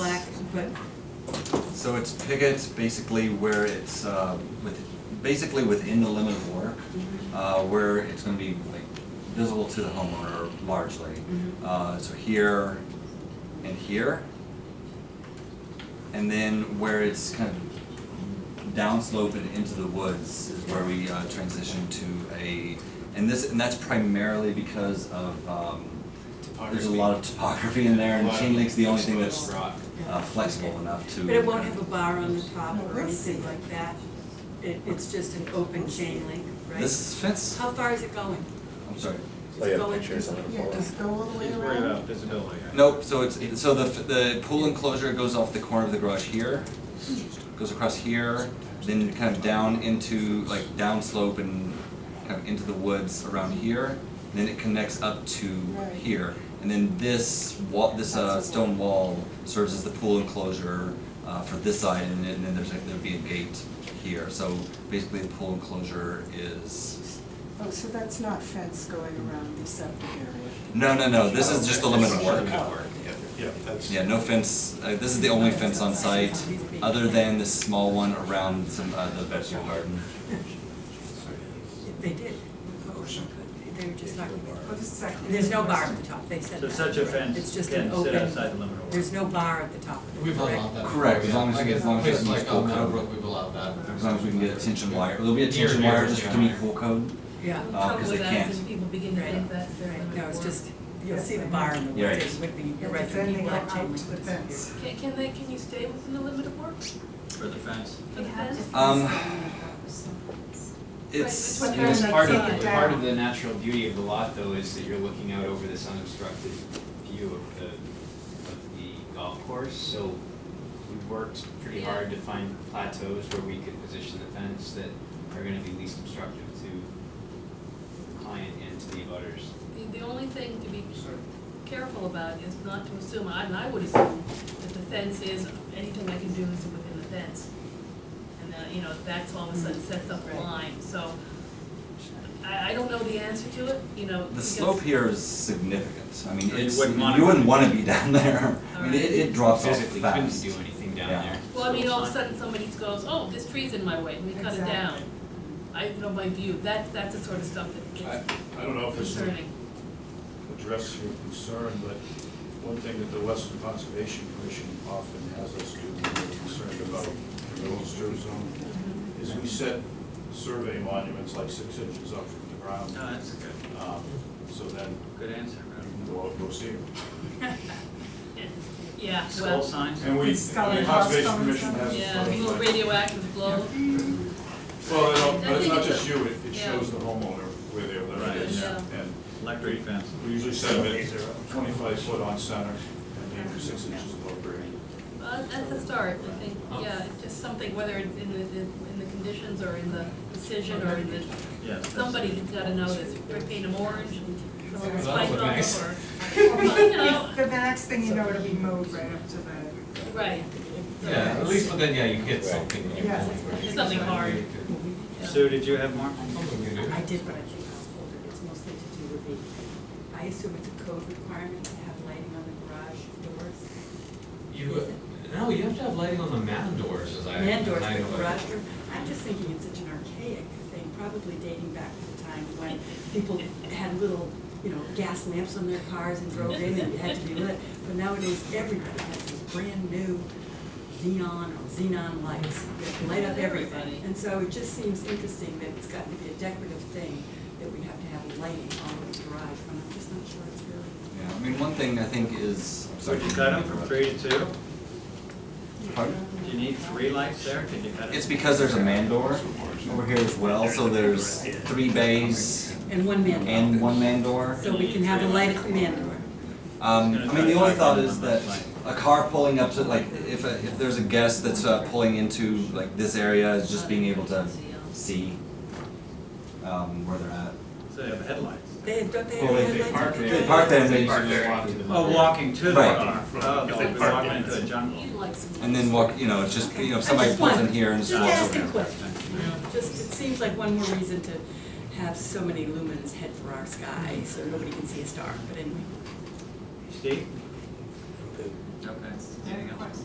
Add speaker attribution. Speaker 1: but,
Speaker 2: So it's pickets basically where it's, uh, with, basically within the limit of work, uh, where it's gonna be like visible to the homeowner largely.
Speaker 1: Mhm.
Speaker 2: Uh, so here and here. And then where it's kind of downslope and into the woods is where we, uh, transition to a, and this, and that's primarily because of, um, there's a lot of topography in there and chain link's the only thing that's,
Speaker 3: Rock.
Speaker 2: uh, flexible enough to.
Speaker 1: but it won't have a bar on the top
Speaker 4: No,
Speaker 1: or
Speaker 4: let's
Speaker 1: anything
Speaker 4: see.
Speaker 1: like that. It, it's just an open chain link, right?
Speaker 2: This fence,
Speaker 1: How far is it going?
Speaker 2: I'm sorry.
Speaker 5: Oh, yeah,
Speaker 1: It's going-
Speaker 5: pictures on it.
Speaker 4: Yeah, just go all the way
Speaker 3: He's worried about
Speaker 4: around.
Speaker 3: visibility. I think.
Speaker 2: Nope, so it's, so the, the pool enclosure goes off the corner of the garage here, goes across here, then kind of down into, like downslope and kind of into the woods around here, then it connects up to
Speaker 4: Right.
Speaker 2: here. And then this wall, this uh,
Speaker 4: That's a wall.
Speaker 2: stone wall serves as the pool enclosure uh, for this side, and then and then there's like, there'd be a gate here. So basically, the pool enclosure is,
Speaker 4: Oh, so that's not fence going around the septic area?
Speaker 2: no, no, no, this is just the limit of work.
Speaker 6: Yeah, that's.
Speaker 2: Yeah, no fence, uh, this is the only fence on site, other than this small one around some, uh, the vegetable garden.
Speaker 1: They did. Oh, They were just talking about.
Speaker 4: What is that?
Speaker 1: There's no bar at the top, they said
Speaker 3: So
Speaker 1: that.
Speaker 3: such a
Speaker 1: It's
Speaker 3: fence
Speaker 1: just an
Speaker 3: can sit outside
Speaker 1: open,
Speaker 3: the limit of work.
Speaker 1: there's no bar at the top.
Speaker 7: We've allowed that.
Speaker 2: Correct, as long as you get- as long as you
Speaker 7: Places
Speaker 2: get
Speaker 7: like
Speaker 2: full
Speaker 7: on
Speaker 2: cover.
Speaker 7: Meadowbrook, we've allowed that.
Speaker 2: As long as we can get a tension wire, there'll be a
Speaker 7: Near-
Speaker 2: tension
Speaker 7: near
Speaker 2: wire just to
Speaker 7: tension
Speaker 2: meet
Speaker 7: wire.
Speaker 2: pool code.
Speaker 1: Yeah,
Speaker 2: Uh, 'cause they can't.
Speaker 8: and people begin to think that's their.
Speaker 1: Right, no, it's just, you'll see the bar in the
Speaker 2: Yeah,
Speaker 1: woods,
Speaker 2: right.
Speaker 1: it would be, you're right,
Speaker 4: Right,
Speaker 1: there'd
Speaker 4: then
Speaker 1: be
Speaker 4: they go
Speaker 1: black
Speaker 4: out
Speaker 1: chain
Speaker 4: to the
Speaker 1: link.
Speaker 4: fence.
Speaker 8: Can, can they, can you stay within the limit of work?
Speaker 3: For the fence.
Speaker 8: For the fence?
Speaker 2: Um, it's,
Speaker 8: Right, which one
Speaker 6: And that's
Speaker 8: goes
Speaker 6: part
Speaker 8: outside?
Speaker 6: of, part of the natural beauty of the lot though is that you're looking out over this unobstructed view of the, of the golf course, so we worked pretty
Speaker 8: Yeah.
Speaker 6: hard to find plateaus where we could position the fence that are gonna be least obstructive to the client and to the abutters.
Speaker 8: The, the only thing to be careful about is not to assume, I, and I would assume, that the fence is, anything I can do is within the fence. And that, you know, that's all of a sudden sets up a
Speaker 1: Right.
Speaker 8: line, so I, I don't know the answer to it, you know.
Speaker 2: the
Speaker 8: because-
Speaker 2: slope here is significant, I mean,
Speaker 3: You
Speaker 2: it's,
Speaker 3: wouldn't wanna-
Speaker 2: you wouldn't wanna be down there. I mean, it, it drops off
Speaker 6: Physically couldn't
Speaker 2: fast.
Speaker 6: do anything down
Speaker 2: Yeah.
Speaker 6: there.
Speaker 8: Well, I mean, all of a sudden, somebody goes, oh, this tree's in my way, let me cut it down. I know my view, that, that's the sort of stuff
Speaker 6: I-
Speaker 8: that
Speaker 6: I don't know
Speaker 8: gets concerning.
Speaker 6: address your concern, but one thing that the Western Conservation Commission often has us do when we're concerned about the registered zone is we set survey monuments like six inches up from the ground,
Speaker 3: No, that's a good,
Speaker 6: um, so then
Speaker 3: good answer.
Speaker 6: you can go out and go see them.
Speaker 8: Yeah,
Speaker 3: Skull
Speaker 8: well,
Speaker 3: signs?
Speaker 6: And we, and
Speaker 4: It's got
Speaker 6: the
Speaker 4: a
Speaker 6: Conservation
Speaker 4: custom-
Speaker 6: Commission has.
Speaker 8: yeah,
Speaker 6: has
Speaker 8: little
Speaker 6: like-
Speaker 8: radioactive glow.
Speaker 6: Well, I don't-
Speaker 8: I
Speaker 6: but it's
Speaker 8: think
Speaker 6: not
Speaker 8: it's
Speaker 6: just
Speaker 8: a-
Speaker 6: you, it, it
Speaker 8: yeah.
Speaker 6: shows the homeowner where their limit
Speaker 3: Right,
Speaker 6: is.
Speaker 8: yeah.
Speaker 6: And
Speaker 3: Electric fence.
Speaker 6: we usually set them at twenty-five foot on center and then six inches above grade.
Speaker 8: Uh, that's a start, I think, yeah, just something, whether it's in the, in the conditions or in the decision or in the,
Speaker 3: Yes. that's-
Speaker 8: somebody's gotta know this, We're painting them orange, and someone's
Speaker 7: Well, that
Speaker 8: pipe
Speaker 7: would be nice.
Speaker 8: off,
Speaker 4: The
Speaker 8: know.
Speaker 4: the next thing you know, it'll be mowed right up to the,
Speaker 8: or, right,
Speaker 7: Yeah, at least, but then, yeah, you get something. when you
Speaker 4: Yeah.
Speaker 7: pull it, right?
Speaker 8: Something hard. yeah.
Speaker 3: Sue, did you have more?
Speaker 7: Something you do.
Speaker 1: I did what I think I'll hold it, it's mostly to do with the, I assume it's a code requirement to have lighting on the garage doors.
Speaker 7: You, uh, no, you have to have lighting on the man doors, as I.
Speaker 1: Man doors,
Speaker 7: as I
Speaker 1: the
Speaker 7: know it.
Speaker 1: garage door, I'm just thinking it's such an archaic thing, probably dating back to the time when people had little, you know, gas lamps on their cars and drove in and it had to be lit. But nowadays, everybody has these brand new xenon or xenon lights that light up everything.
Speaker 8: Everybody.
Speaker 1: And so it just seems interesting that it's gotten to be a decorative thing, that we have to have lighting all over the garage, but I'm just not sure it's really.
Speaker 2: Yeah, I mean, one thing I think is. I'm
Speaker 3: So
Speaker 2: sorry,
Speaker 3: did you cut them from three to two?
Speaker 2: Pardon?
Speaker 3: Do you need three lights there? Did you cut it?
Speaker 2: It's because there's a man door over here as well, so there's three bays
Speaker 1: And one man door.
Speaker 2: and one man door.
Speaker 1: So we can have a light at the man door.
Speaker 2: Um, I mean, the only thought is that a car pulling up to, like, if, a- if there's a guest that's uh, pulling into, like, this area, is just being able to see, um, where they're at.
Speaker 3: So they have headlights.
Speaker 1: They had, don't they have
Speaker 2: Well,
Speaker 1: lights?
Speaker 2: they- they
Speaker 1: at
Speaker 2: park
Speaker 1: the
Speaker 2: there. They
Speaker 1: garage?
Speaker 2: park there and
Speaker 6: They
Speaker 2: they-
Speaker 6: usually just walk to the
Speaker 3: Oh,
Speaker 6: limit.
Speaker 3: walking to the
Speaker 2: Right.
Speaker 3: car. Oh, they'll be walking into a jungle.
Speaker 8: You'd like some.
Speaker 2: And then walk, you know, it's just, you know, if somebody pulls in here and just
Speaker 1: Just
Speaker 2: walks over.
Speaker 1: asking questions, you know, just, it seems like one more reason to have so many lumens head for our sky, so nobody can see a star, but anyway.
Speaker 3: Steve? Okay. Anything else?